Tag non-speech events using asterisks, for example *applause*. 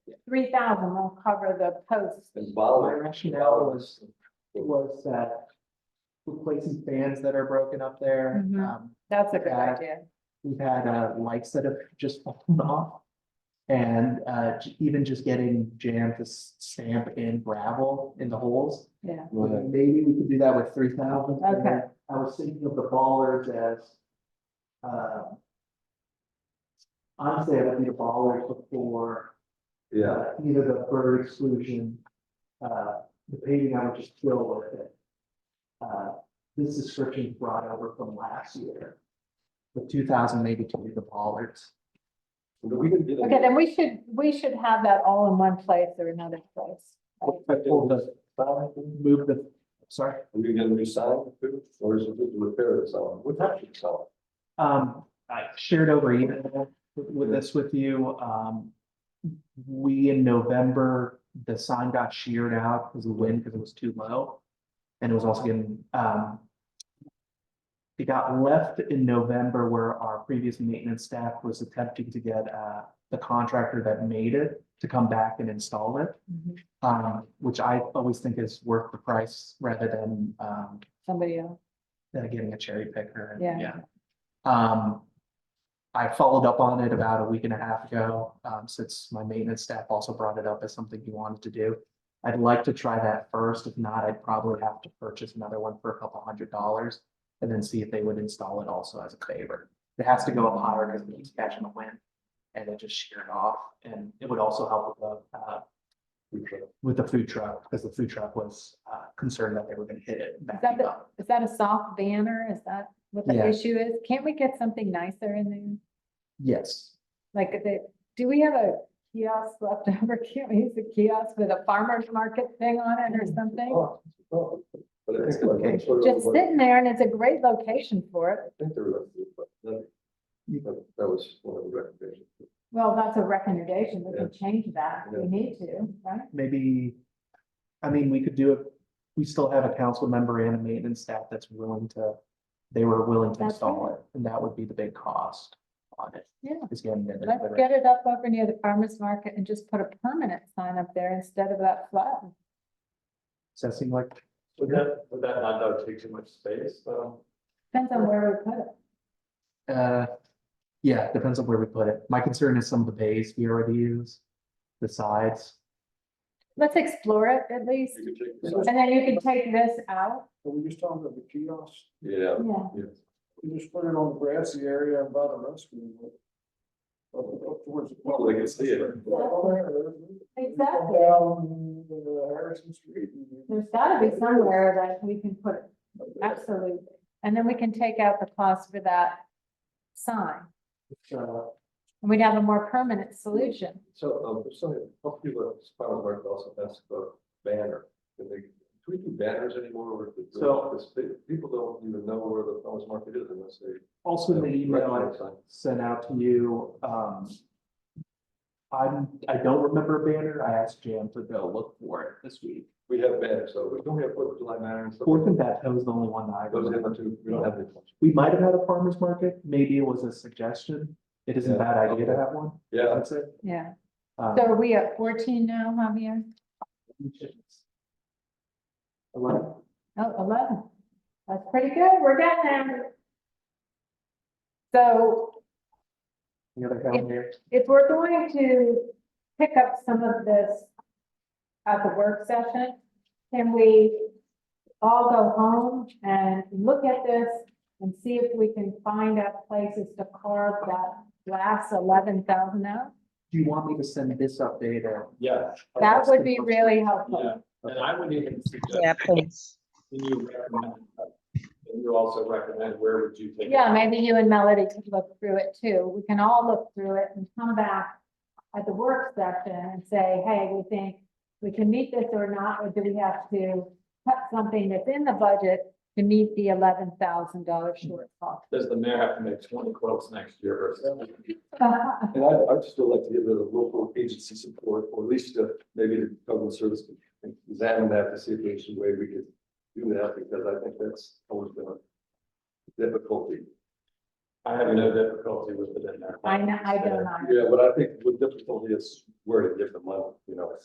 three thousand will cover the post. And Baldwin. My rationale was, it was, uh, replacing fans that are broken up there. Mhm. Um, That's a good Yeah. idea. We've had, uh, lights that have just fallen off. And, uh, j- even just getting jam to s- stamp in gravel in the holes. Yeah. Right. Maybe we could do that with three thousand. Okay. I was thinking of the ballers as, uh, honestly, I would need a baller before Yeah, uh, either the bird exclusion, uh, the painting I would just fill with it. Uh, this description is brought over from last year. The two thousand maybe to do the bollards. but we didn't get Okay, it. then we should, we should have that all in one place or another place. What I if I pulled did- the, move the, sorry, Are we gonna get a new sign too, or is it just a repair that's on, what type of sign? um, I shared over email with- with this with you, um. We in November, the sign got sheared out because of the wind, because it was too low. And it was also getting, um, It got left in November where our previous maintenance staff was attempting to get uh the contractor that made it to come back and install it. Mm-hmm. Mhm. Um, which I always think is worth the price rather than um Somebody else. than getting a cherry picker. and- Yeah. Um, I followed up on it about a week and a half ago, um, since my maintenance staff also brought it up as something he wanted to do. I'd like to try that first. If not, I'd probably have to purchase another one for a couple hundred dollars and then see if they would install it also as a favor. It has to go up higher because it keeps catching the wind and it just sheared off. And it would also help with the, uh, with the food truck, because the food truck was, uh, concerned that they were gonna hit it. backing the- up. Is that a soft banner? Is that what Yeah. the issue is? Can't we get something nicer in there? Yes. Like, if they- do we have a kiosk left *laughs* over? Can't we use a kiosk with a farmer's market thing on it or something? Oh, oh, But I think like, that's sort of Just what- sitting there and it's a great location for it. I think there was, but that, that- that was one of the recommendations. Well, that's a recommendation. We Yeah. can change that. if We Yeah. need to, right? maybe, I mean, we could do it, we still have a council member and a maintenance staff that's willing to, they were willing to That's install it, and that would be the big cost on it. Yeah. Is getting it. Let's get it up over near the farmer's market and just put a permanent sign up there instead of that flat. Does that seem like, Would that, would that not though take too much space though? Depends on where we put it. uh, yeah, depends on where we put it. My concern is some of the bays we already use, the sides. Let's explore it at least. You could take the sign. And then you can take this out. But we just talking about the kiosk, Yeah, Yeah. yeah. we just put it on the grassy area by the restroom. Up up towards the. Well, they can see it. Exactly. Down uh, Harrison Street. uh, There's gotta be somewhere that we can put it. Absolutely. And then we can take out the cost for that sign. Uh, So, And we'd have a more permanent solution. So, um, there's something, a uh, couple people at Farmers Market also asked about banner, do they, do we do banners anymore, or do So- people don't even know where the Farmers Market is unless they. Also in the email, I Recognize sign. sent out to you, um. I'm, I don't remember a banner. I asked Jam to go look for it this week. We have banners, so we don't have Fourth of July banner and stuff. Fourth and Bateau is the only one that I Those remember. are the two, we don't have any. We might have had a farmer's market, maybe it was a suggestion, it isn't a Yeah. bad idea to have one, Yeah, I'd say. Yeah. Um, So are we at fourteen now, Javier? Eleven, Oh, 11. That's pretty good. We're getting there. So the other calendar, if we're going to pick up some of this at the work session, can we all go home and look at this and see if we can find out places to carve that last eleven thousand out? do you want me to send this update or? Yeah. That would be really helpful. Yeah, and I would even Yeah, suggest, please. can you recommend, uh, can you also recommend where would you take? it? Yeah, maybe you and Melody could look through it too. We can all look through it and come back at the work session and say, hey, we think we can meet this or not, or do we have to cut something that's in the budget to meet the eleven thousand dollar shortfall? *laughs* Does the mayor have to make twenty quotes next year versus? and I, I'd still like to give it a local agency support, or at least uh, maybe the government service can examine that to see if there's a way we could do that, because I think that's always been a difficulty. I have no difficulty with it in there. I know, I don't know. Yeah, but I think the difficulty is where to get the money.